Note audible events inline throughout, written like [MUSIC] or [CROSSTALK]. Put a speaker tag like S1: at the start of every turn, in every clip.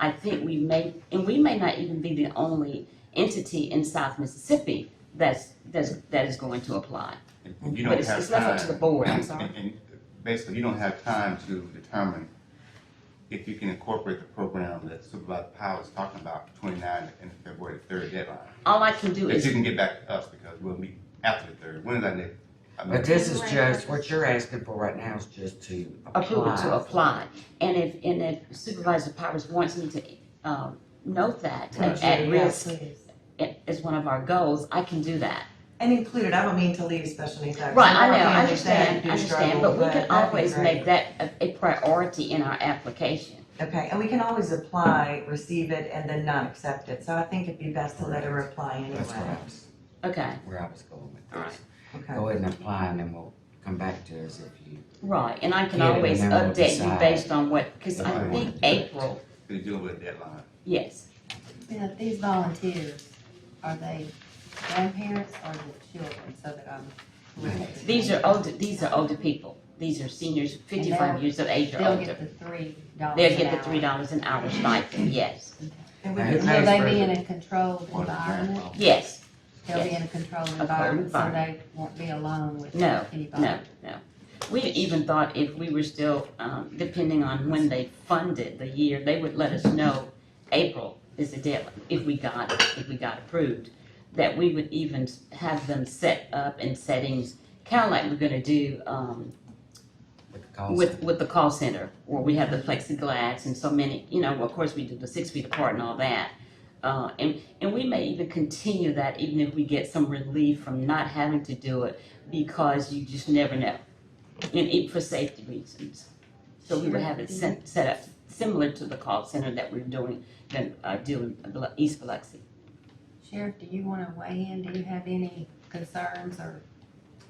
S1: I think we may, and we may not even be the only entity in South Mississippi that's, that's, that is going to apply.
S2: And You
S1: But
S2: don't
S1: it's,
S2: have
S1: it's left up to the
S2: time,
S1: board, I'm sorry.
S2: and, and basically, you don't have time to determine if you can incorporate the program that Supervisor Powell is talking about, twenty-nine and February third deadline.
S1: All I can do
S2: If you
S1: is,
S2: can get back to us, because we'll meet after the third, when is our next? I mean,
S3: But this is just, what you're asking for right now is just to
S1: approval to
S3: apply.
S1: apply. And if, and if Supervisor Powers wants me to, um, note that,
S2: Right.
S1: at- at risk
S4: please.
S1: i- is one of our goals, I can do that.
S4: And included, I don't mean to leave special needs out. 'cause
S1: Right, I know,
S4: really
S1: I understand, I
S4: you do
S1: understand,
S4: struggle,
S1: but we can
S4: that'd be
S1: always
S4: great.
S1: make that a, a priority in our application.
S4: Okay, and we can always apply, receive it, and then not accept it, so I think it'd be best to let her apply
S3: That's where
S4: anyway.
S3: I was,
S1: Okay,
S3: where I was going with
S1: All right.
S3: this.
S4: Okay,
S3: Go ahead and apply and then we'll come back to us if you,
S1: right, and I can
S3: Yeah, and
S1: always
S3: then we'll
S1: update you
S3: decide
S1: based on what, cause I
S2: Right.
S1: think April,
S2: They're dealing with a deadline.
S1: yes.
S5: Now, these volunteers, are they grandparents or the children, so that I'm correct?
S1: These are older, these are older people. These are seniors, fifty-five
S5: they'll-
S1: years of age or
S5: They'll
S1: older.
S5: get the three dollars
S1: They'll get the three dollars an hour stipend, yes.
S4: and we
S3: Now,
S4: can,
S3: who
S5: Will
S3: pays
S5: they
S3: for
S5: be
S3: it?
S5: in a controlled
S2: Or the
S5: environment?
S2: grandfather.
S1: Yes,
S5: They'll be in a controlled
S1: controlled
S5: environment, so
S1: environment.
S5: they won't be alone with
S1: No,
S5: anybody?
S1: no, no. We even thought if we were still, um, depending on when they funded the year, they would let us know April is the deadline, if we got, if we got approved, that we would even have them set up in settings, kinda like we're gonna do, um,
S3: with the call
S1: with, with the call center, where we have the plexiglass and so many, you know, of course, we do the six feet apart and all that. Uh, and, and we may even continue that even if we get some relief from not having to do it, because you just never know. And it, for safety reasons. So we would have it set, set up similar to the call center that we're doing, that, uh, doing East Biloxi.
S5: Sheriff, do you wanna weigh in? Do you have any concerns or?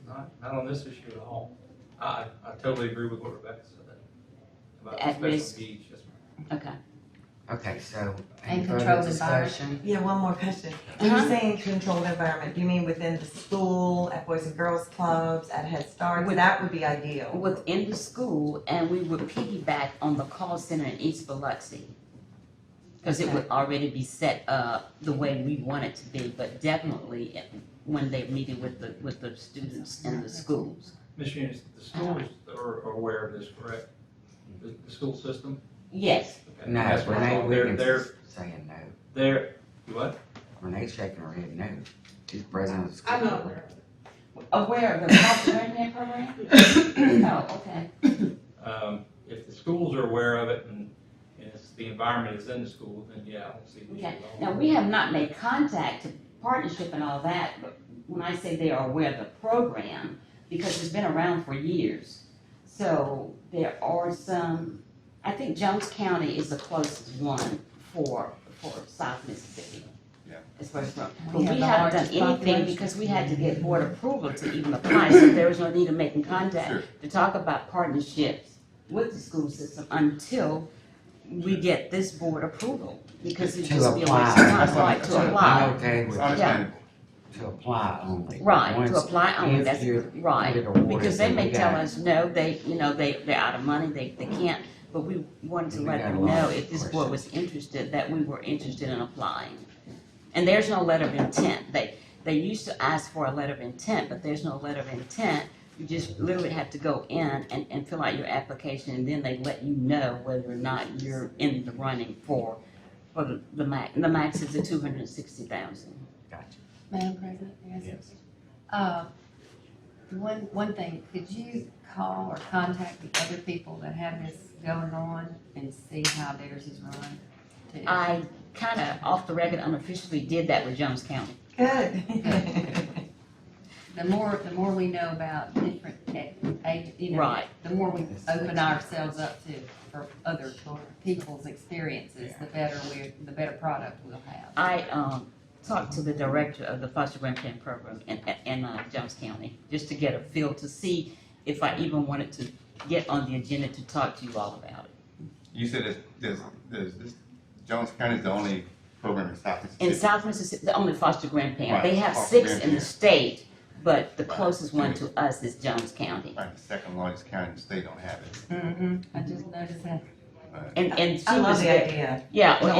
S6: Not, not on this issue at all. I, I totally agree with what Rebecca said then. about
S1: At
S6: the
S1: risk.
S6: special needs, yes, ma'am.
S1: Okay.
S3: Okay, so
S5: And
S3: any further
S5: controlled
S3: discussion?
S4: yeah, one more question. When
S1: Uh-huh.
S4: you say in controlled environment, do you mean within the school, at Boys and Girls Clubs, at Head Start?
S1: With-
S4: That would be ideal.
S1: within the school, and we would piggyback on the call center in East Biloxi. Cause it would already be set up the way we want it to be, but definitely at- when they're meeting with the, with the students and the schools.
S6: Ms. Eunice, the schools are are aware of this, correct? The, the school system?
S1: Yes,
S6: Okay.
S3: No,
S6: That's what's
S3: Renee
S6: wrong. They're-
S3: Wiggins
S6: They're,
S3: is saying no.
S6: they're, what?
S3: Renee's shaking her head no. She's president of the school.
S7: I'm not
S3: board.
S1: aware [COUGHS]
S7: aware.
S1: of the call center in their program? [COUGHS] Oh, okay.
S6: Um, if the schools are aware of it and, and it's, the environment is in the school, then yeah, I don't see the issue
S1: Okay.
S6: at all.
S1: Now, we have not made contact, partnership and all that, but when I say they are aware of the program, because it's been around for years. So there are some, I think Jones County is the closest one for, for South Mississippi.
S2: Yeah.
S1: As far as, from- but
S5: We
S1: we
S5: have the
S1: haven't done
S5: largest
S1: anything
S5: population.
S1: because we had to get board approval to even apply, so there was no need of making contact
S2: Sure.
S1: to talk about partnerships with the school system until we get this board approval, because it'd
S3: To
S1: just be a waste of
S3: apply.
S1: time, right,
S2: That's
S1: to
S2: right.
S3: I'm
S1: apply.
S3: okay
S2: It's
S3: with,
S2: understandable.
S3: to apply only.
S1: Right, to
S3: Once-
S1: apply only,
S3: if
S1: that's,
S3: you
S1: right,
S3: get awarded,
S1: because they
S3: then
S1: may
S3: we
S1: tell
S3: got-
S1: us, no, they, you know, they, they're out of money, they, they can't, but we wanted to
S3: We
S1: let
S3: got a
S1: them
S3: lot
S1: know
S3: of
S1: if this board was interested, that we were interested in applying. And there's no letter of intent, they, they used to ask for a letter of intent, but there's no letter of intent. You just literally have to go in and, and fill out your application, and then they let you know whether or not you're in the running for, for the, the max, the max is the two hundred and sixty thousand.
S5: Madam President, may I ask a
S3: Yes.
S5: question? Uh, One, one thing, could you call or contact the other people that have this going on and see how theirs is run? too?
S1: I kind of off the record unofficially did that with Jones County.
S4: Good. [LAUGHS]
S5: The more, the more we know about different, eh, age- you know, the more we open ourselves up to, for other people's experiences, the better we're, the better product we'll have.
S1: I, um, talked to the director of the foster grandparent program in, in, uh, Jones County, just to get a feel to see if I even wanted to get on the agenda to talk to you all about it.
S2: You said there's, there's, there's, this, Jones County is the only program in South
S1: In
S2: Mississippi.
S1: South Mississippi, the only foster grandparent, they
S2: Right,
S1: have
S2: foster
S1: six in the
S2: grandparent.
S1: state, but the
S2: Right.
S1: closest one to us is Jones County.
S2: Like the second largest county in the state don't have it.
S5: Mm-hmm. I just noticed that.
S2: Uh,
S8: fun.
S4: And, and she
S1: I love
S4: was,
S1: the
S4: ve-
S1: idea.
S4: yeah,
S1: No,